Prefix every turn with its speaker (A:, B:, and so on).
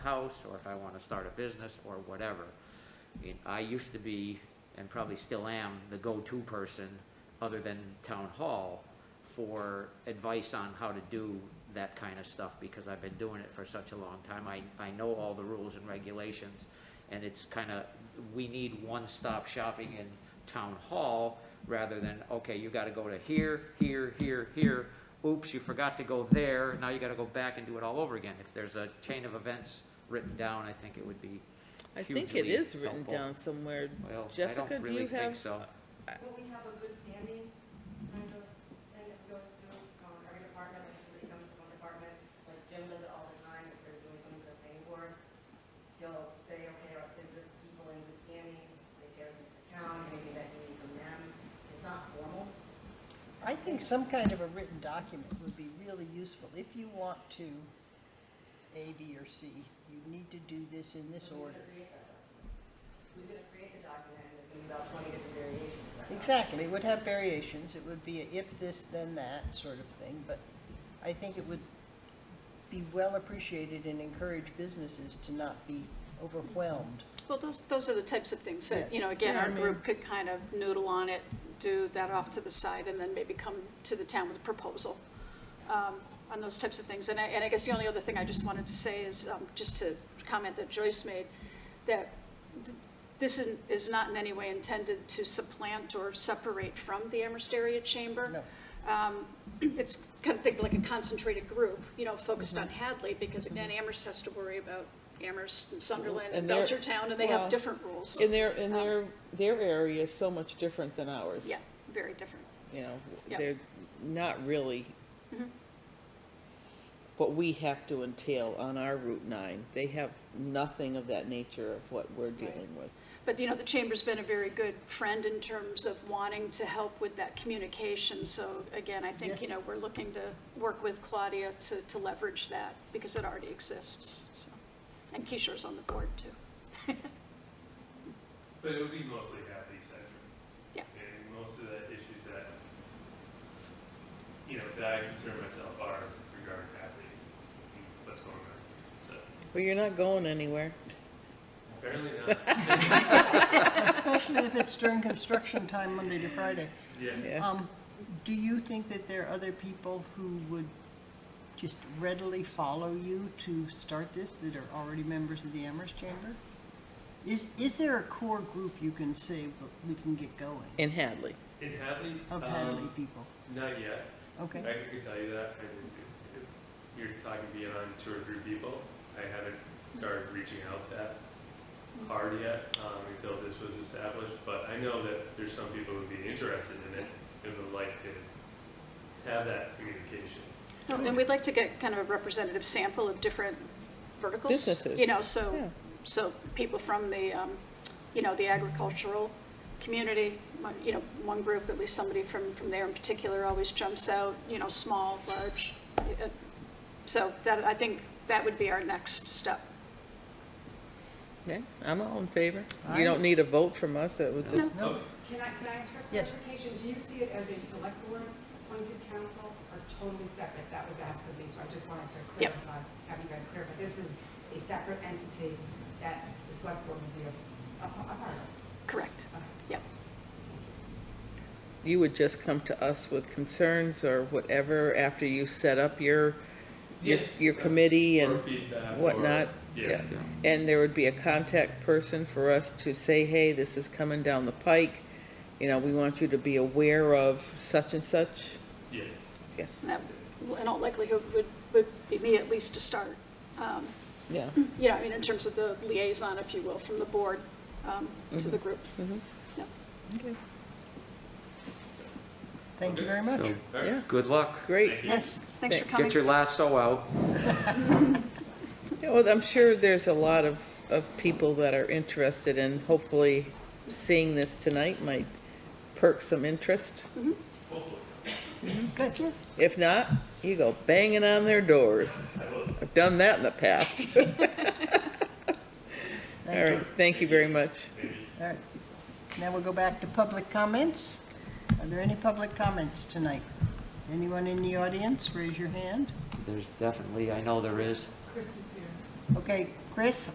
A: house, or if I want to start a business, or whatever. It- I used to be, and probably still am, the go-to person, other than town hall, for advice on how to do that kind of stuff, because I've been doing it for such a long time. I, I know all the rules and regulations, and it's kind of, we need one-stop shopping in town hall, rather than, okay, you got to go to here, here, here, here, oops, you forgot to go there, now you gotta go back and do it all over again. If there's a chain of events written down, I think it would be
B: I
A: hugely
B: think it is written
A: helpful.
B: down somewhere.
A: Well, I
B: Jessica,
A: don't
B: do
A: really
B: you
A: think
B: have?
A: so.
C: Will we have a good standing, kind of, and it goes through um, every department, like somebody comes from one department, like Jim does it all the time, if they're doing something for the planning board, he'll say, okay, are- is this people in good standing, they care for the town, anything that you need from them, it's not formal.
D: I think some kind of a written document would be really useful. If you want to, A, B, or C, you need to do this in this
C: Who's gonna
D: order.
C: create that document? Who's gonna create the document, and there's gonna be about twenty different variations. of that document.
D: Exactly, it would have variations, it would be a if this, then that sort of thing, but I think it would be well appreciated and encourage businesses to not be overwhelmed.
E: Well, those, those are the types of things that,
D: Yes.
E: you know, again,
B: Yeah, I
E: our
B: mean-
E: group could kind of noodle on it, do that off to the side, and then maybe come to the town with a proposal um, on those types of things. And I, and I guess the only other thing I just wanted to say is, um, just to comment that Joyce made, that th- this is- is not in any way intended to supplant or separate from the Amherst Area Chamber
D: No.
E: um, it's kind of think like a concentrated group, you know, focused on Hadley, because again, Amherst has to worry about Amherst and Sunderland and
B: Mm-hmm. And they're-
E: Belchertown, and they
B: well,
E: have different rules.
B: And their, and
E: Um,
B: their, their area is so much different than ours.
E: Yeah, very different.
B: You know,
E: Yeah.
B: they're not really
E: Mhm.
B: what we have to entail on our Route nine. They have nothing of that nature of what we're dealing with.
E: But, you know, the chamber's been a very good friend in terms of wanting to help with that communication. So again, I think,
D: Yes.
E: you know, we're looking to work with Claudia to, to leverage that, because it already exists, so. And Kishore's on the board, too.
F: But it would be mostly Hadley-centric.
E: Yeah.
F: And most of the issues that, you know, that I concern myself are regarding Hadley, and what's going on, so,
B: But you're not going anywhere.
F: apparently not.
D: Especially if it's during construction time, Monday to Friday.
F: Yeah,
B: Yeah.
D: Um, do you think that there are other people who would just readily follow you to start this that are already members of the Amherst Chamber? Is, is there a core group you can say, "Well, we can get going,
B: In Hadley.
F: in Hadley,
D: of Hadley
F: um,
D: people?
F: not yet,
D: Okay,
F: I can tell you that, I mean, if you're talking beyond two or three people, I haven't started reaching out that hard yet, um, until this was established, but I know that there's some people who'd be interested in it, and would like to have that communication.
E: Well, And we'd like to get kind of a representative sample of different verticals.
B: Businesses.
E: You know,
B: Yeah.
E: so, so people from the, um, you know, the agricultural community, my- you know, one group, at least somebody from, from there in particular always jumps out, you know, small, large. uh, So that, I think that would be our next step.
B: Yeah, I'm all in favor. You
D: Aye.
B: don't need a vote from us, it would just,
F: So,
G: Can I, can I ask for
D: Yes.
G: clarification? Do you see it as a select board appointed council or totally separate? That was asked of me, so I just wanted to
E: Yep.
G: clarify, have you guys clarify. This is a separate entity that the select board would be a, a a part of.
E: Correct.
G: Okay.
E: Yep.
B: you would just come to us with concerns or whatever after you set up your, your,
F: Yeah.
B: your committee
F: Or
B: and
F: feedback.
B: whatnot.
F: or- Yeah.
B: And there would be a contact person for us to say, hey, this is coming down the pike. You know, we want you to be aware of such and such.
F: Yes.
E: And that, in all likelihood, would, would be me at least to start. Um,
B: Yeah.
E: You know, I mean, in terms of the liaison, if you will, from the board um, to the group.
B: Mhm.
E: Yep.
B: Okay.
D: thank you very much.
A: So,
F: All right.
B: Yeah,
A: Good luck.
B: great.
F: Thank you.
D: Yes,
E: Thanks for
B: Thank-
E: coming.
A: Get your lasso out.
B: Yeah, Well, I'm sure there's a lot of, of people that are interested and hopefully seeing this tonight might perk some interest.
F: Hopefully.
D: good.
B: If not, you go banging on their doors.
F: I will.
B: I've done that in the past. All
D: Thank
B: right,
D: you.
B: thank you very much.
D: All right. Now we'll go back to public comments. Are there any public comments tonight? Anyone in the audience, raise your hand.
A: There's definitely, I know there is.
G: Chris is here.
D: Okay, Chris,